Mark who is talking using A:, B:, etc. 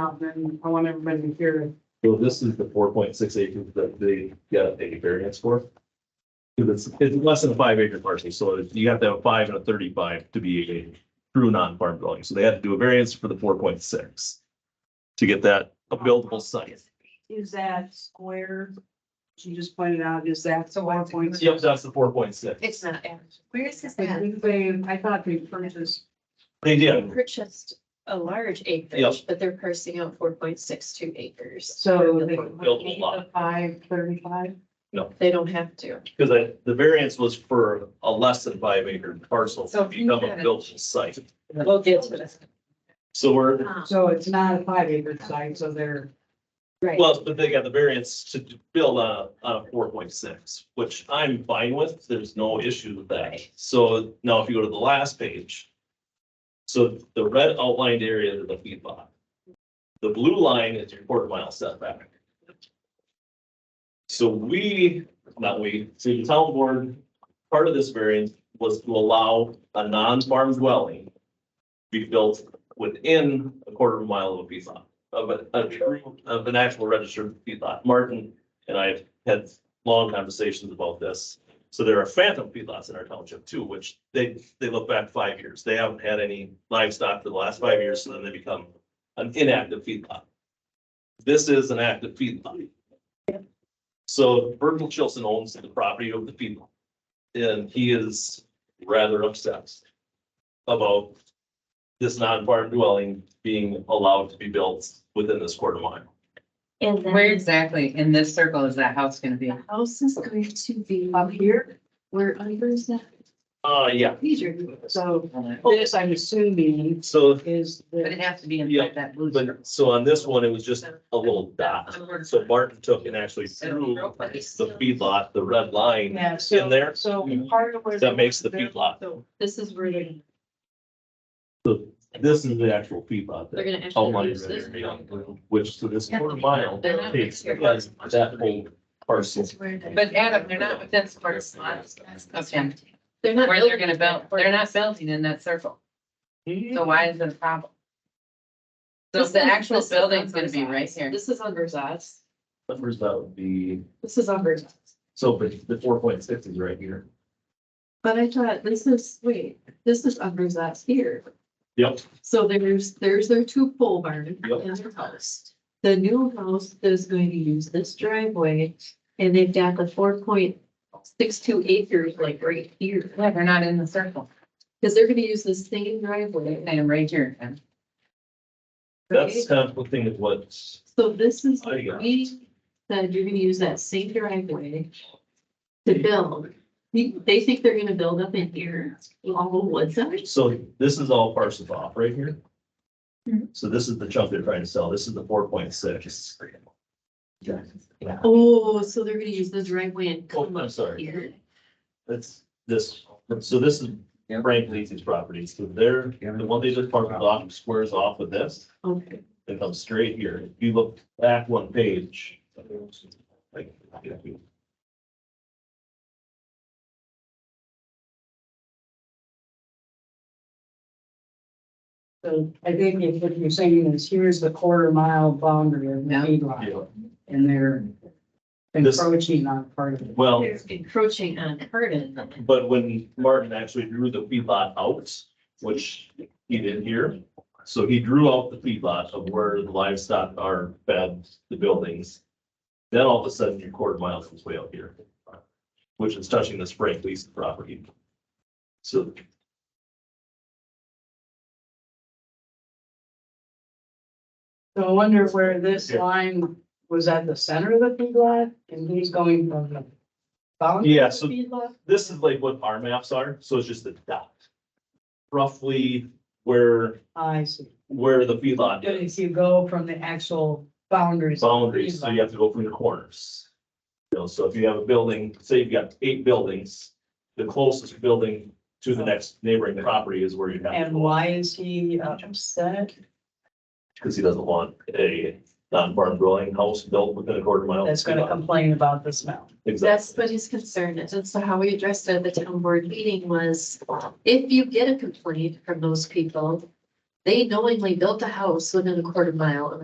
A: out, and I want everybody to hear it.
B: So this is the four point six acres that they got a variance for. 'Cause It's, it's less than a five acre parcel, so you have to have a five and a thirty-five to be a true non-farm dwelling, so they had to do a variance for the four point six. To get that a buildable site.
A: Is that square? She just pointed out, is that
C: So
A: four
C: what's it
A: point?
C: gonna
B: Yep, that's the four point six.
C: It's not average. Where is this at?
A: They, I thought they purchased,
B: They
C: They
B: did,
C: purchased a large acreage, but they're parsing out four point six two acres.
A: so they.
B: Built a lot.
A: Five thirty-five.
C: They don't have to.
B: because I- the variance was for a less than five acre parcel
C: So
B: to
C: if you
B: become a
C: had-
B: buildable site.
C: We'll get to this.
B: So we're,
C: Ah.
A: So it's not a five acre site, so they're,
C: Right.
B: Well, but they got the variance to build on a, on a four point six, which I'm fine with. There's no issue with that.
C: Right.
B: So now if you go to the last page. So the red outlined area is the feed lot. The blue line is your quarter mile setback. So we, not we, so the town board, part of this variance was to allow a non-farm dwelling. Be built within a quarter of a mile of a feed lot of a, a true, of an actual registered feedlot. Martin and I have had long conversations about this. So there are phantom feedlots in our township too, which they, they look back five years. They haven't had any livestock for the last five years, so then they become an inactive feedlot. This is an active feedlot. So Virgil Chilson owns the property of the feedlot. And he is rather upset about this non-farm dwelling being allowed to be built within this quarter mile.
C: And
D: Where
C: then
D: exactly in this circle is that house gonna be?
C: the house is going to be
A: up here,
C: where under is that?
B: Uh, yeah,
C: These are.
A: so
D: But
A: this, I'm assuming,
B: so,
A: is
D: it
A: the,
D: has to be
B: Yeah,
D: inside that blue circle.
B: but, so on this one, it was just a little dot. So Martin took and actually drew the feedlot, the red line,
A: yeah, so.
B: In there? Mm-hmm.
A: So part of where.
B: that makes the feedlot.
C: So this is where they're,
B: This is the actual feedlot
C: they're
B: that
C: gonna actually
B: outlined
C: use
B: in
C: this.
B: red area, which to this quarter mile
C: They're not
B: takes
C: here.
B: that whole parcel.
C: This is where they-
D: But Adam, they're not within square miles. Okay.
C: They're not.
D: Where they're
C: building
D: gonna build,
C: that.
D: they're not building in that circle. So why is it a problem? So
C: This
D: the
C: is-
D: actual
C: this is
D: building's
C: on
D: gonna be
C: Verzaz.
D: right here.
C: This is on Verzaz.
B: Numbers that would be,
C: This is on Verzaz.
B: so but the four point six is right here.
C: But I thought this is, wait, this is on Verzaz here.
B: Yep.
C: So there's, there's their two pole barn
B: Yep.
C: and their house. The new house is going to use this driveway and they've got the four point six two acres like right here.
D: Yeah, they're not in the circle.
C: Cause they're gonna use the same driveway.
D: I am right here. and
B: That's conflicting with what
C: So this is,
B: I got it.
C: we said you're gonna use that same driveway to build. They they think they're gonna build up in here, all the woods up.
B: So this is all parcels off right here.
C: Mhm.
B: So this is the chunk they're trying to sell. This is the four point six.
C: Oh, so they're gonna use the driveway and
B: Oh,
C: come
B: I'm
C: up
B: sorry.
C: here.
B: That's this. So this is Frank Lee's property. So they're, the one they just parked off squares off with this.
C: Okay.
B: It comes straight here. If you look back one page. like,
A: So I think if what you're saying is here's the quarter mile boundary of the
D: Yeah.
A: feedlot
B: yeah.
A: and they're
B: This-
A: encroaching on part of it.
B: Well,
C: They're encroaching on Hardin.
B: but when Martin actually drew the feedlot out, which he did here. So he drew out the feedlot of where the livestock are fed, the buildings. Then all of a sudden, your quarter mile comes way out here, which is touching this Frank Lee's property. So.
A: So I wonder where this line was at the center of the feedlot and he's going from the boundary
B: Yeah,
A: of
B: so-
A: the feedlot?
B: This is like what our maps are, so it's just a dot. Roughly where,
A: I see.
B: where the feedlot
A: But if
B: is,
A: you go from the actual boundaries. of the
B: boundaries, so you
A: feedlot,
B: have to go from the corners. You know, so if you have a building, say you've got eight buildings, the closest building to the next neighboring property is where you have. to
A: And
B: go.
A: why is he upset?
B: because he doesn't want a non-farm dwelling house built within a quarter mile.
A: That's gonna complain about the smell.
B: Exactly.
C: That's what his concern is. And so how we addressed it at the town board meeting was if you get a complaint from those people, they knowingly built a house within a quarter mile of